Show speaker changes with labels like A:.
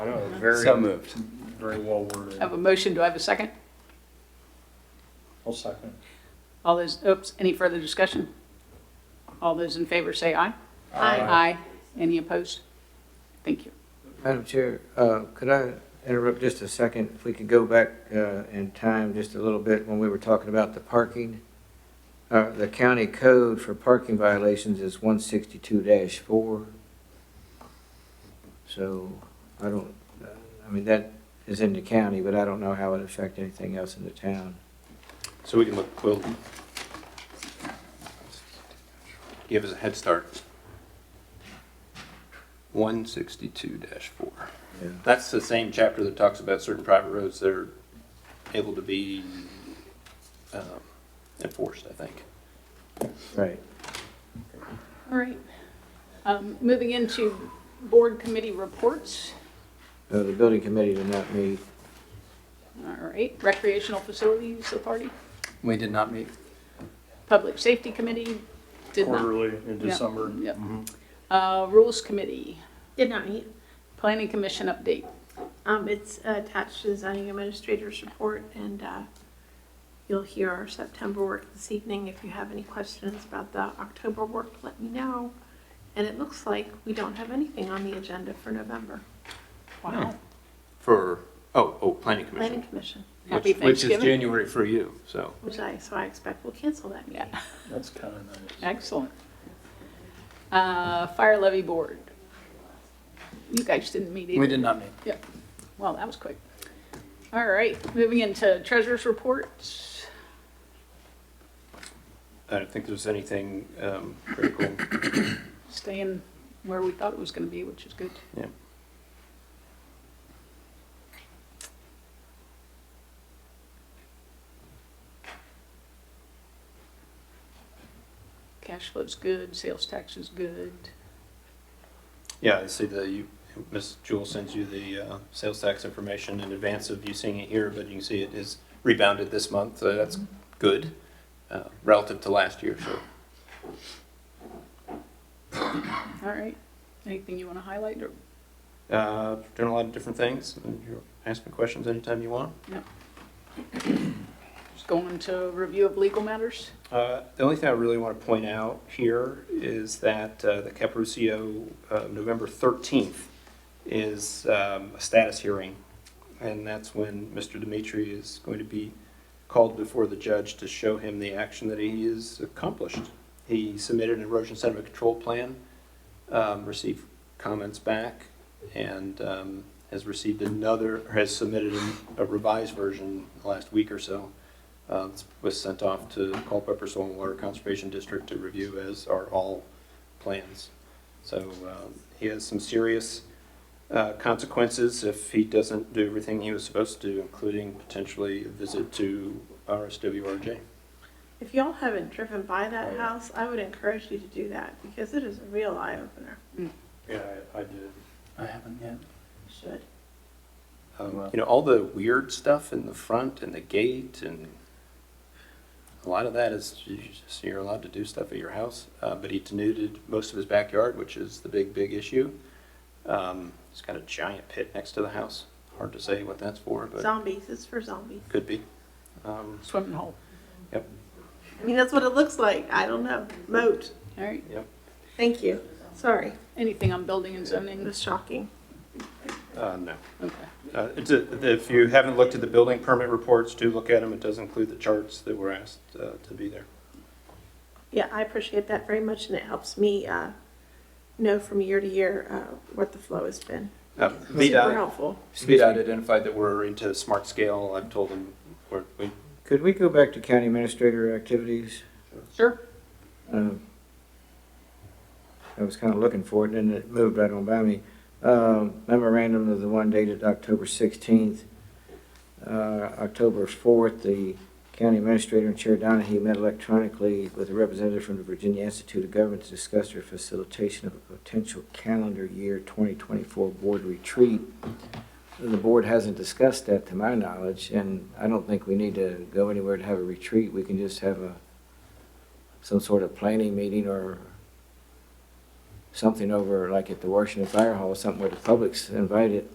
A: very,
B: So moved.
A: very well worded.
C: I have a motion, do I have a second?
A: I'll second.
C: All those, oops, any further discussion? All those in favor say aye.
A: Aye.
C: Aye. Any opposed? Thank you.
D: Madam Chair, uh, could I interrupt just a second? If we could go back uh, in time just a little bit when we were talking about the parking. Uh, The county code for parking violations is 162-4. So I don't, uh, I mean, that is in the county, but I don't know how it affects anything else in the town.
E: So we can look, we'll give us a head start. One sixty-two four.
D: Yeah.
E: That's the same chapter that talks about certain private roads that are able to be um, enforced, I think.
D: Right.
C: All right. Um, Moving into board committee reports.
D: Uh, The building committee did not meet.
C: All right, recreational facilities authority,
B: We did not meet.
C: public safety committee, did not.
A: Quarterly in
C: Yeah,
A: December.
C: Yep. Uh, Rules committee,
F: Did not meet.
C: planning commission update.
F: Um, it's attached to the zoning administrator's report and, uh, you'll hear our September work this evening. If you have any questions about the October work, let me know. And it looks like we don't have anything on the agenda for November.
C: Wow.
E: For, oh, oh, planning
F: Planning
E: commission.
F: Commission,
E: which-
C: Happy
E: Which is
C: Thanksgiving.
E: January for you, so.
F: which I, so I expect we'll cancel that meeting.
C: Yeah,
A: That's kind of nice.
C: excellent. Uh, Fire levy board. You guys didn't meet either.
B: We did not meet.
C: Yep. Well, that was quick. All right, moving into treasurer's reports.
E: I don't think there's anything um, critical.
C: Staying where we thought it was going to be, which is good.
E: Yeah.
C: Cash flow's good, sales tax is good.
E: Yeah, I see the, you, Ms. Jewell sends you the, uh, sales tax information in advance of you seeing it here, but you can see it has rebounded this month, so that's good, uh, relative to last year, so.
C: All right, anything you want to highlight or?
E: Uh, doing a lot of different things, and you're asking questions anytime you want.
C: Just going to review of legal matters?
E: Uh, The only thing I really want to point out here is that uh, the Caparucio, uh, November 13th, is um, a status hearing, and that's when Mr. Dimitri is going to be called before the judge to show him the action that he has accomplished. He submitted an erosion sediment control plan, um, received comments back, and um, has received another, or has submitted a revised version last week or so uh, was sent off to Culpeper Soil and Water Conservation District to review, as are all plans. So um, he has some serious uh, consequences if he doesn't do everything he was supposed to, do, including potentially a visit to RSWRJ.
F: If y'all haven't driven by that house, I would encourage you to do that because it is a real eye opener.
E: Yeah, I did.
B: I haven't yet.
F: Should.
E: You know, all the weird stuff in the front and the gate and a lot of that is, you just- you're allowed to do stuff at your house. Uh, But he denuded most of his backyard, which is the big, big issue. Um, He's got a giant pit next to the house. Hard to say what that's for, but
F: Zombies, it's for zombies.
E: could be. Um,
C: Swimming hole.
F: I mean, that's what it looks like. I don't know. Moat.
C: All right,
F: Thank you. Sorry.
C: anything on building and
F: It
C: zoning?
F: was shocking.
E: uh, No.
C: Okay.
E: Uh, it's a- If you haven't looked at the building permit reports, do look at them. It does include the charts that were asked uh, to be there.
F: Yeah, I appreciate that very much, and it helps me uh, know from year to year uh, what the flow has been.
E: Uh,
F: Super
E: VDOT
F: helpful.
E: VDOT identified that we're into smart scale. I've told them we're, we
D: Could we go back to county administrator activities?
C: Sure.
D: Um, I was kind of looking for it, and it moved right on by me. Um, Memorandum of the one dated October 16th. Uh, October 4th, the county administrator and Chair Donahue met electronically with a representative from the Virginia Institute of Government to discuss their facilitation of a potential calendar year 2024 board retreat. The board hasn't discussed that, to my knowledge, and I don't think we need to go anywhere to have a retreat. We can just have a some sort of planning meeting or something over, like at the Washington Fire Hall, something where the public's invited.